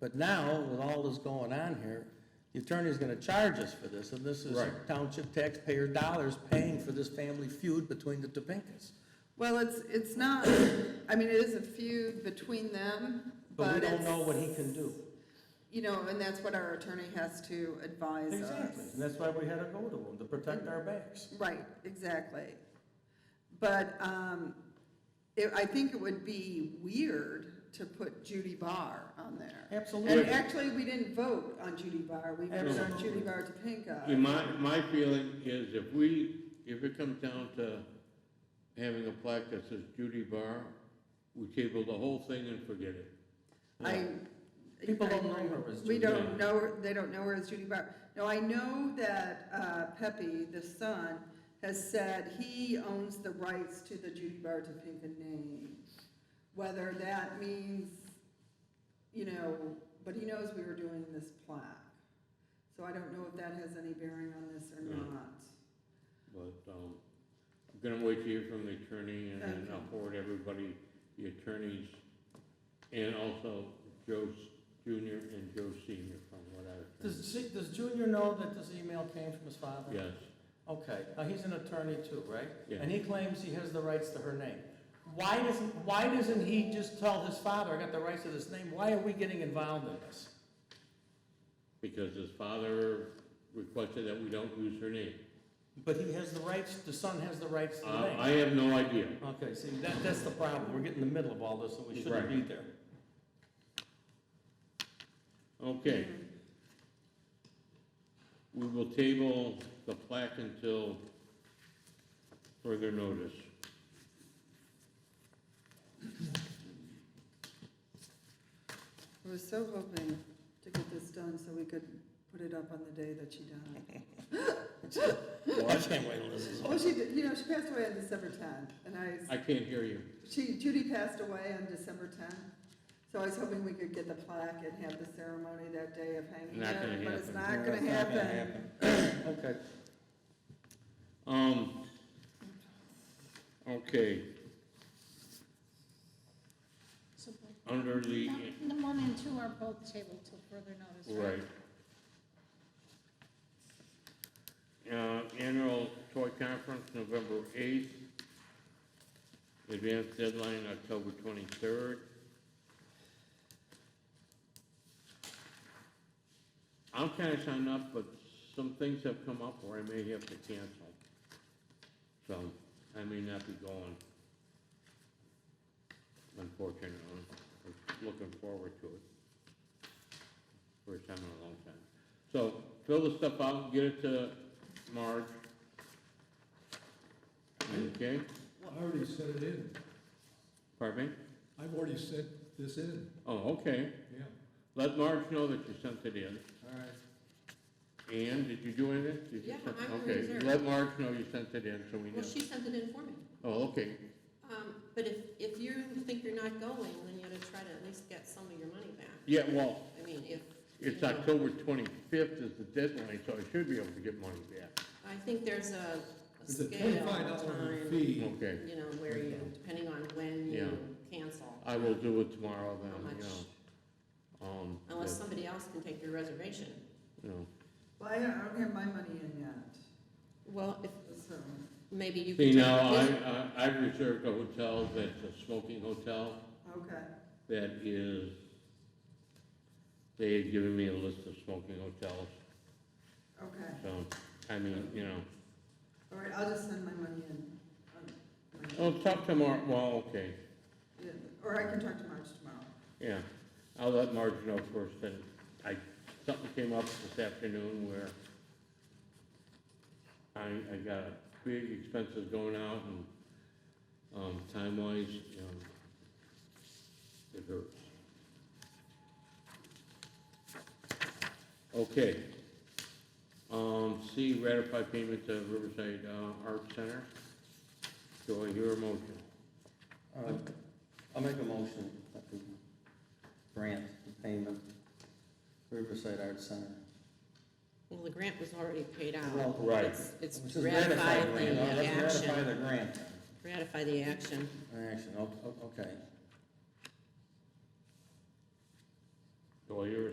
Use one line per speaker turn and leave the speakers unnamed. But now, with all this going on here, the attorney's gonna charge us for this, and this is
Right.
township taxpayer dollars paying for this family feud between the Topinkas.
Well, it's, it's not, I mean, it is a feud between them,
But
but
we don't
it's.
know what he can do.
You know, and that's what our attorney has to advise us.
Exactly, and that's why we had to go to him, to protect our backs.
Right, exactly. But um, it- I think it would be weird to put Judy Barr on there. And
Absolutely.
actually, we didn't vote on Judy Barr, we voted on Judy Barr
And
Topinka.
my, my feeling is if we, if it comes down to having a plaque that says Judy Barr, we table the whole thing and forget it.
I.
People don't
I-
know her as Judy
We don't
Barr.
know, her- they don't know her as Judy Barr. No, I know that uh, Pepe, the son, has said he owns the rights to the Judy Barr Topinka name. Whether that means, you know, but he knows we were doing this plaque. So I don't know if that has any bearing on this or
No.
not.
But, um, I'm gonna wait to hear from the attorney and then I'll
Okay.
forward everybody, the attorneys, and also Joe Junior and Joe Senior from what I was.
Does, she- does Junior know that this email came from his father?
Yes,
Okay, now he's an attorney too, right?
Yeah.
And he claims he has the rights to her name. Why doesn't, why doesn't he just tell his father, I got the rights to this name, why are we getting involved in this?
because his father requested that we don't use her name.
But he has the rights, the son has the rights to the
Uh, I
name.
have no idea.
Okay, see, that, that's the problem, we're getting in the middle of all this, and we shouldn't be
Right.
there.
Okay. We will table the plaque until further notice.
I was so hoping to get this done so we could put it up on the day that she died.
I can't wait till this is
Well, she, did- you know, she passed away on December tenth, and I,
I can't hear you.
she, Judy passed away on December tenth. So I was hoping we could get the plaque and have the ceremony that day of hanging
Not
her,
gonna
but it's
happen.
not gonna happen.
Okay.
Um, okay.
So both-
Under the,
num- The one and two are both tabled till further notice, right?
right. Uh, annual toy conference, November eighth. Advanced deadline, October twenty-third. I'm kinda signed up, but some things have come up where I may have to cancel. So, I may not be going. Unfortunately, I'm looking forward to it. First time in a long time. So, fill the stuff out, get it to Marge. Okay,
I already set it in.
pardon me?
I've already set this in,
Oh, okay.
yeah.
Let Marge know that you sent it in.
All right.
Ann, did you do anything? Did you
Yeah,
send-
I'm
Okay,
reserved.
let Marge know you sent it in, so we know.
Well, she sent it in for me.
Oh, okay,
Um, but if, if you think you're not going, then you ought to try to at least get some of your money back.
yeah, well,
I mean, if,
it's October twenty-fifth is the deadline, so I should be able to get money back.
I think there's a a
It's a
scale
twenty-five dollar
time,
fee.
Okay,
you know, where you, depending on when
Yeah.
you cancel.
I will do it tomorrow
How
then,
much,
you know. Um,
unless
but,
somebody else can take your reservation.
you know.
Well, I don't, I don't have my money in yet,
Well, if,
so,
maybe you could.
See,
take
now, I,
this-
I- I've reserved a hotel that's a smoking hotel
okay.
that is, they had given me a list of smoking hotels,
Okay,
so, I mean, you know.
all right, I'll just send my money in. on my-
I'll Oh, talk tomorrow, well, okay,
yeah, Or I can talk to Marge tomorrow.
yeah. I'll let Marge know first, and I, something came up this afternoon where I, I got big expenses going out and, um, time-wise, you know, it hurts. Okay. Um, C, ratify payment to Riverside uh, Art Center. Do I hear a motion?
Uh, I'll make a motion that we grant the payment Riverside Arts Center.
Well, the grant was already paid out.
Well,
Right.
It's- It's
Let's just ratify
ratify
the grant. Oh,
the
Let's Ratify the
action,
grant,
ratify the action.
action, o- o- okay.
Do well, you're